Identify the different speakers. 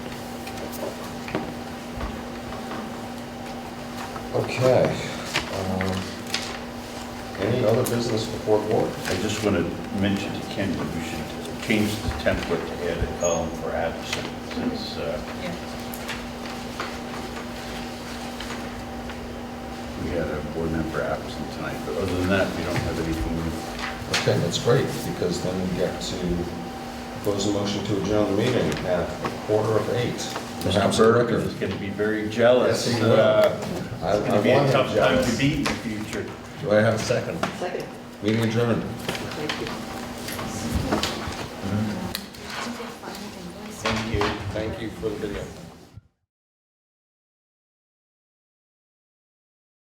Speaker 1: Okay. um, Any other business before board?
Speaker 2: I just want to mention to Ken that we should change the template to add a column for absent, since uh,
Speaker 3: Yeah.
Speaker 2: we had a board member absent tonight, but other than that, we don't have anything.
Speaker 1: Okay, that's great, because then we get to close the motion to adjourn the meeting at a quarter of eight. Perhaps a
Speaker 2: Burke
Speaker 1: record.
Speaker 2: is going to be very
Speaker 1: Yes,
Speaker 2: jealous.
Speaker 1: he will.
Speaker 2: uh,
Speaker 1: I-
Speaker 2: It's going
Speaker 1: I
Speaker 2: to be a
Speaker 1: want
Speaker 2: tough
Speaker 1: him
Speaker 2: time to
Speaker 1: jealous.
Speaker 2: beat in the future.
Speaker 1: Do I have a second?
Speaker 3: Second.
Speaker 1: Meeting adjourned.
Speaker 3: Thank you.
Speaker 2: Thank you.
Speaker 1: Thank you for the video.